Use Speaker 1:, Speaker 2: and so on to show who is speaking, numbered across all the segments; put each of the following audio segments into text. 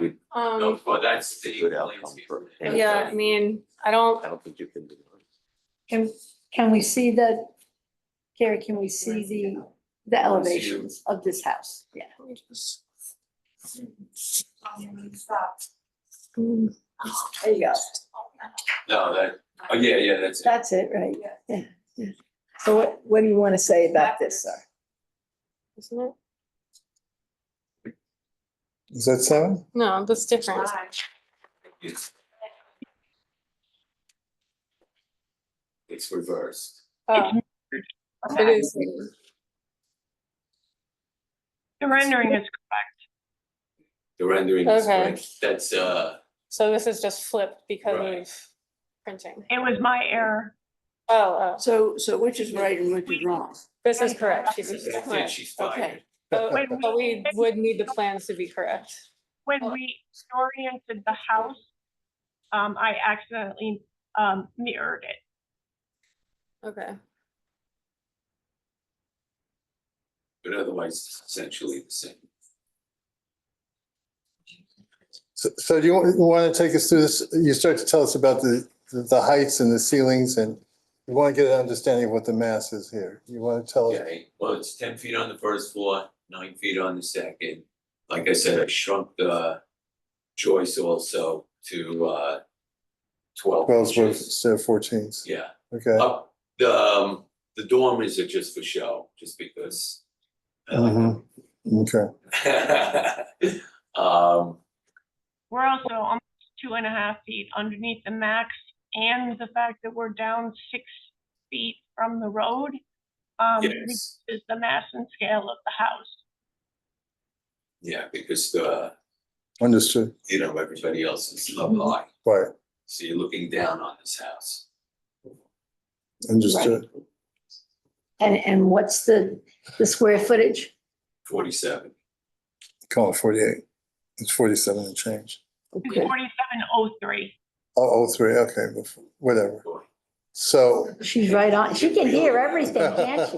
Speaker 1: Um,
Speaker 2: No, but that's the
Speaker 3: Good outcome
Speaker 2: landscape.
Speaker 3: for-
Speaker 1: yeah, I mean, I don't,
Speaker 3: I don't think you can do it.
Speaker 4: Can, can we see the, Carrie, can we see the, the elevations of this house? Yeah. Mm, There you go.
Speaker 2: No, that, oh, yeah, yeah, that's it.
Speaker 4: That's it, right? Yeah. yeah. So what, what do you want to say about this, sir?
Speaker 1: isn't it?
Speaker 5: Is that seven?
Speaker 1: No, that's different.
Speaker 2: It's- It's reversed.
Speaker 1: Oh, it is.
Speaker 6: The rendering is
Speaker 2: The rendering is
Speaker 1: Okay.
Speaker 2: correct. That's, uh,
Speaker 1: So this is just flipped because
Speaker 2: Right.
Speaker 1: of printing.
Speaker 6: It was my error.
Speaker 1: Oh, oh,
Speaker 7: So, so which is right and which is wrong?
Speaker 1: this is correct. She's-
Speaker 2: I think
Speaker 1: right,
Speaker 2: she's fired.
Speaker 7: okay.
Speaker 1: But
Speaker 6: When
Speaker 1: but we
Speaker 6: we,
Speaker 1: would need the plans to be correct.
Speaker 6: when we oriented the house, um, I accidentally, um, mirrored it.
Speaker 1: Okay.
Speaker 2: But otherwise, it's essentially the same.
Speaker 5: So, so do you want to take us through this? You start to tell us about the, the heights and the ceilings and you want to get an understanding of what the mass is here. You want to tell us,
Speaker 2: Okay, well, it's ten feet on the first floor, nine feet on the second. Like I said, I shrunk the choice also to uh twelve
Speaker 5: well,
Speaker 2: inches.
Speaker 5: instead of fourteens,
Speaker 2: Yeah,
Speaker 5: okay?
Speaker 2: up, the um, the dormers are just for show, just because. I like them.
Speaker 5: Okay,
Speaker 2: Um,
Speaker 6: We're also almost two and a half feet underneath the max and the fact that we're down six feet from the road. Um,
Speaker 2: yes,
Speaker 6: is the mass and scale of the house.
Speaker 2: yeah, because the,
Speaker 5: understood,
Speaker 2: you know, everybody else is level high,
Speaker 5: right,
Speaker 2: so you're looking down on this house.
Speaker 5: understood.
Speaker 4: And, and what's the, the square footage?
Speaker 2: Forty-seven,
Speaker 5: Call it forty-eight. It's forty-seven and change.
Speaker 6: It's
Speaker 4: Okay.
Speaker 6: forty-seven oh three.
Speaker 5: Oh, oh, three, okay, bef- whatever.
Speaker 2: boy.
Speaker 5: So.
Speaker 4: She's right on. She can hear everything, can't she?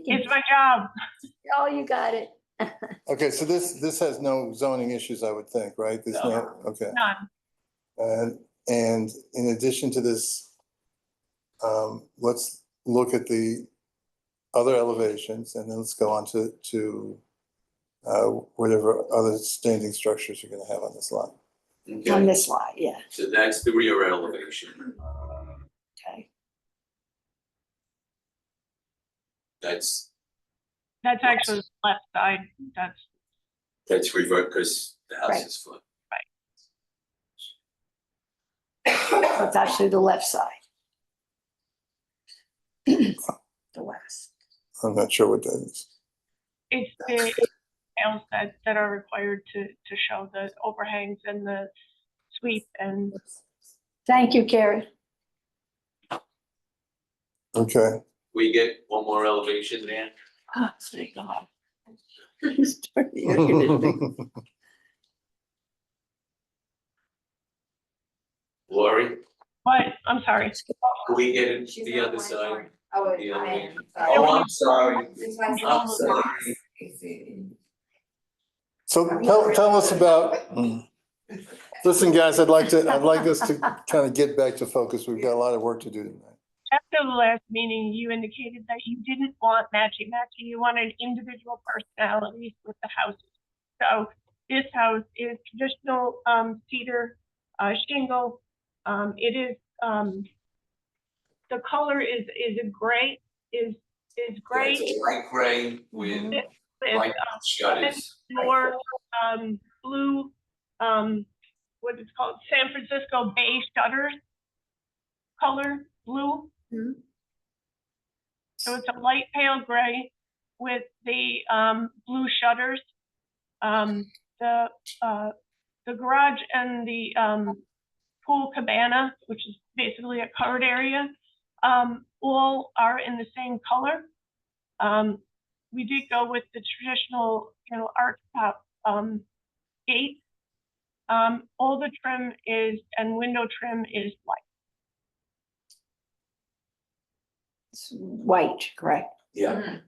Speaker 4: she? can-
Speaker 6: It's my job.
Speaker 4: Oh, you got it.
Speaker 5: Okay, so this, this has no zoning issues, I would think, right? There's no, okay.
Speaker 6: None.
Speaker 5: And, and in addition to this, um, let's look at the other elevations and then let's go on to, to uh, whatever other standing structures you're gonna have on this lot.
Speaker 4: On
Speaker 2: Okay,
Speaker 4: this slide, yeah,
Speaker 2: so that's the rear elevation,
Speaker 4: okay.
Speaker 2: that's,
Speaker 6: That's actually the left side. That's,
Speaker 2: that's revert, because the house
Speaker 4: Right.
Speaker 2: is flipped.
Speaker 4: So It's actually the left side. The west.
Speaker 5: I'm not sure what that is.
Speaker 6: it's the it's scales that, that are required to, to show the overhangs and the sweep and
Speaker 4: Thank you, Carrie.
Speaker 5: Okay,
Speaker 2: We get one more elevation there?
Speaker 4: Ah,
Speaker 7: Oh, thank God. Just turn the air conditioning.
Speaker 2: Lori,
Speaker 6: But I'm sorry.
Speaker 2: can we get
Speaker 8: She's
Speaker 2: the
Speaker 8: on
Speaker 2: other
Speaker 8: my
Speaker 2: side?
Speaker 8: card. Oh,
Speaker 2: The
Speaker 8: wait,
Speaker 2: other
Speaker 8: I
Speaker 2: one.
Speaker 8: am.
Speaker 2: Oh, I'm sorry.
Speaker 8: It's my
Speaker 2: I'm
Speaker 8: son's
Speaker 2: sorry.
Speaker 8: box. It's, uh,
Speaker 5: so tell, tell us about, listen, guys, I'd like to, I'd like us to kind of get back to focus. We've got a lot of work to do tonight.
Speaker 6: After the last meeting, you indicated that you didn't want matchy-matchy. You wanted individual personalities with the houses. So this house is traditional um, cedar uh, shingle. Um, It is, um, the color is, is a gray, is, is gray.
Speaker 2: It's a light gray with
Speaker 6: It's,
Speaker 2: light
Speaker 6: uh,
Speaker 2: shutters.
Speaker 6: more um blue, um, what it's called, San Francisco Bay shutters color, blue.
Speaker 4: Mhm.
Speaker 6: So it's a light pale gray with the um blue shutters. Um, the uh, the garage and the um pool cabana, which is basically a covered area, um, all are in the same color. Um, we did go with the traditional, you know, arch top, um, gate. Um, all the trim is, and window trim is white.
Speaker 4: It's White, correct?
Speaker 2: Yeah.